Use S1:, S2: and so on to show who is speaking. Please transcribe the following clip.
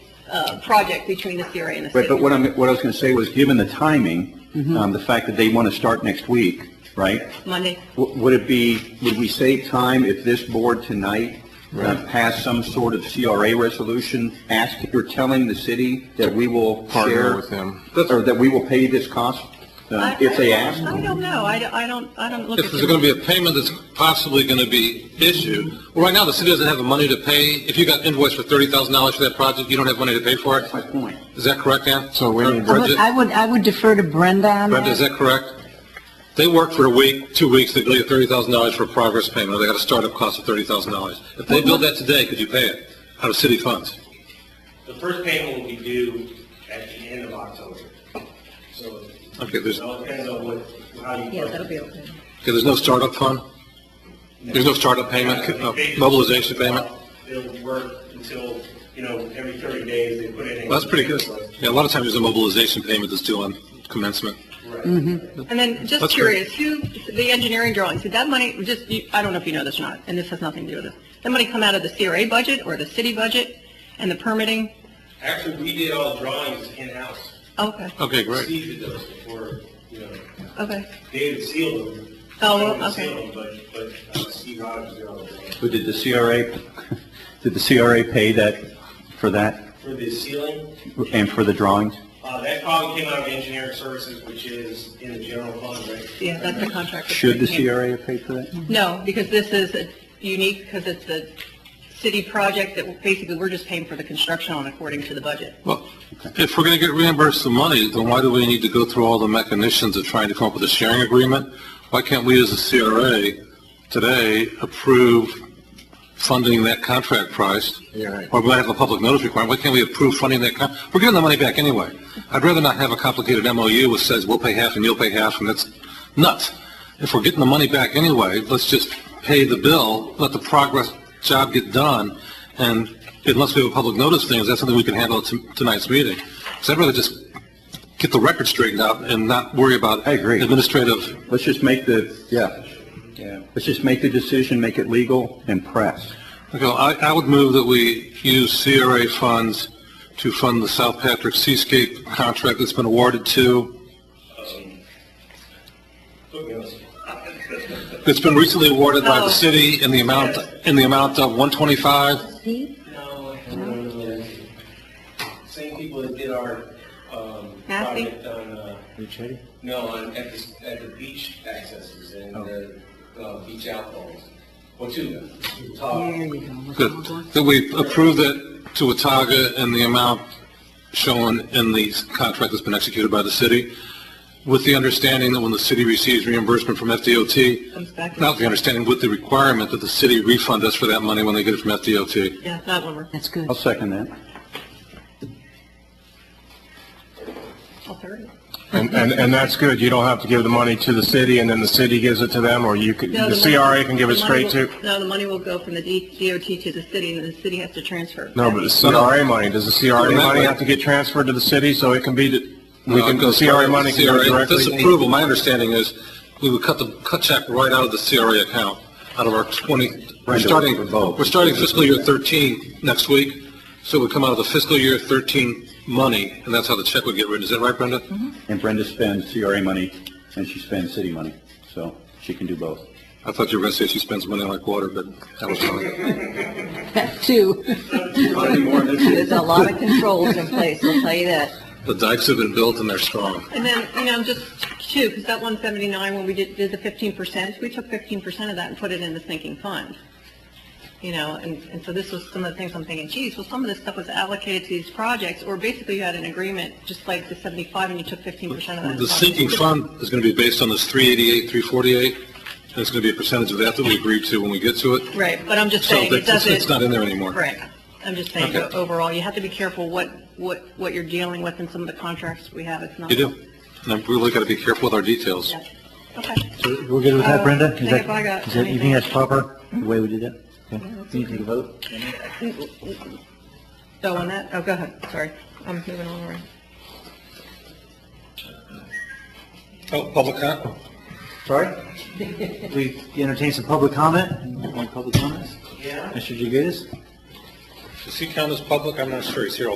S1: uh, project between the CRA and the
S2: Right,
S1: city.
S2: but what I'm, what I was going to say was, given the timing,
S3: Mm-hmm.
S2: um, the fact that they want to start next week, right?
S1: Monday,
S2: W- Would it be, would we save time if this board tonight uh, passed some sort of CRA resolution, ask, you're telling the city that we will
S3: Partner
S2: share?
S3: with them.
S2: Or that we will pay this cost, uh,
S1: I-
S2: if they
S1: I-
S2: ask?
S1: I don't know, I don't, I don't, I don't look at.
S4: If there's going to be a payment that's possibly going to be issued, well, right now, the city doesn't have the money to pay. If you got invoiced for thirty thousand dollars for that project, you don't have money to pay for it.
S2: My point.
S4: Is that correct, Ann?
S3: So we
S4: Or
S3: need-
S5: I would,
S4: Bridget?
S5: I would, I would defer to Brenda on
S4: Brenda, is
S5: that.
S4: that correct? They work for a week, two weeks, they get thirty thousand dollars for a progress payment, or they got a startup cost of thirty thousand dollars. If they build that today, could you pay it out of city funds?
S6: The first payment will be due at the end of October. So
S4: Okay,
S6: it
S4: there's, okay,
S6: all depends on what, how you.
S1: Yeah, that'll be okay.
S4: there's no startup fund? There's no startup payment, uh, mobilization payment?
S6: It'll work until, you know, every thirty days they put it in.
S4: Well, that's pretty good. Yeah, a lot of times there's a mobilization payment that's due on commencement.
S6: Right.
S1: And then, just
S4: That's
S1: curious, who, the engineering drawings, did that money, just, you- I don't know if you know this or not, and this has nothing to do with this, that money come out of the CRA budget or the city budget and the permitting?
S6: Actually, we did all drawings in-house.
S1: Okay,
S4: Okay, great.
S6: Steve did those before, you know,
S1: okay.
S6: David sealed them.
S1: Oh, well,
S6: David
S1: okay.
S6: sealed them, But, but uh, Steve Rogers did all the drawings.
S2: But did the CRA, did the CRA pay that, for that,
S6: For the ceiling,
S2: and for the drawings?
S6: uh, that probably came out of engineering services, which is in the general fund, right?
S1: Yeah, that's the contract. that's
S2: Should the
S1: right here.
S2: CRA have paid for that?
S1: No, because this is a- unique, because it's a city project that basically we're just paying for the construction on according to the budget.
S4: Well, if we're going to get reimbursed the money, then why do we need to go through all the mechanisms of trying to come up with a sharing agreement? Why can't we, as a CRA, today approve funding that contract price?
S3: Yeah, right.
S4: Or we might have a public notice requirement, why can't we approve funding that con, we're giving the money back anyway. I'd rather not have a complicated MOU which says we'll pay half and you'll pay half, and that's nuts. If we're getting the money back anyway, let's just pay the bill, let the progress job get done, and unless we have a public notice thing, is that something we can handle at to- tonight's meeting? So I'd rather just get the record straightened out and not worry about
S2: I agree.
S4: administrative
S2: Let's just make the,
S3: Yeah.
S2: yeah, let's just make the decision, make it legal, and press.
S4: Okay, well, I, I would move that we use CRA funds to fund the South Patrick Seascape contract that's been awarded to, that's been recently awarded by
S1: Oh.
S4: the city in the amount, in the amount of one twenty-five.
S6: No, Same people that did our, um,
S1: Massey?
S6: project on, uh, no, on, at the, at the beach accesses and the, uh, beach outfalls. Well, two, of them. Talk.
S5: There you go.
S4: That, that we approve that to Wataga in the amount shown in the contract that's been executed by the city, with the understanding that when the city receives reimbursement from FDOT,
S1: Comes back.
S4: not the understanding, with the requirement that the city refund us for that money when they get it from FDOT.
S1: Yeah, that one, we're-
S5: That's good.
S2: I'll second that.
S1: I'll third it.
S3: And, and, and that's good. You don't have to give the money to the city and then the city gives it to them, or you could,
S1: No,
S3: the
S1: money-
S3: CRA can give it
S1: the money
S3: straight
S1: will-
S3: to.
S1: No, the money will go from the D- DOT to the city, and then the city has to transfer.
S3: No, but the CRA money, does the CRA
S4: Well, that
S3: money
S4: way-
S3: have to get transferred to the city so it can be, d- we
S4: No,
S3: can,
S4: it goes
S3: CRA
S4: right-
S3: money can go
S4: CRA
S3: directly?
S4: This approval, my understanding is, we would cut the, cut check right out of the CRA account, out of our 20, we're
S2: Right,
S4: starting,
S2: with both.
S4: we're starting fiscal year 13 next week, so it would come out of the fiscal year 13 money, and that's how the check would get written. Is that right, Brenda?
S1: Mm-hmm.
S2: And Brenda spends CRA money, and she spends city money, so she can do both.
S4: I thought you were going to say she spends money like water, but that was fine.
S5: Two. There's a lot of controls in place, I'll tell you that.
S4: The dikes have been built and they're strong.
S1: And then, you know, just two, because that 179, when we did, did the 15%, we took 15% of that and put it in the sinking fund. You know, and, and so this was some of the things I'm thinking, geez, well, some of this stuff was allocated to these projects, or basically you had an agreement, just like the 75, and you took 15% of that.
S4: The sinking fund is going to be based on this 388, 348, and it's going to be a percentage of that that we agree to when we get to it.
S1: Right, but I'm just
S4: So
S1: saying, it
S4: that's-
S1: doesn't.
S4: it's not in there anymore.
S1: Right. I'm just saying,
S4: Okay.
S1: overall, you have to be careful what, what, what you're dealing with in some of the contracts we have, it's not.
S4: You do. And I've really got to be careful with our details.
S1: Yeah. Okay.
S7: We're good with that, Brenda?
S1: think
S7: Is that-
S1: if Oh, I got
S7: Is that, you
S1: anything-
S7: think that's proper, the way we did that? Okay. You can vote?
S1: So on that, oh, go ahead, sorry, I'm moving on already.
S4: Oh, public comment?
S7: Sorry? We entertain some public comment? Any public comments? Yeah. Mr. Jagutis?
S4: Does he count as public? I'm not sure. He's here all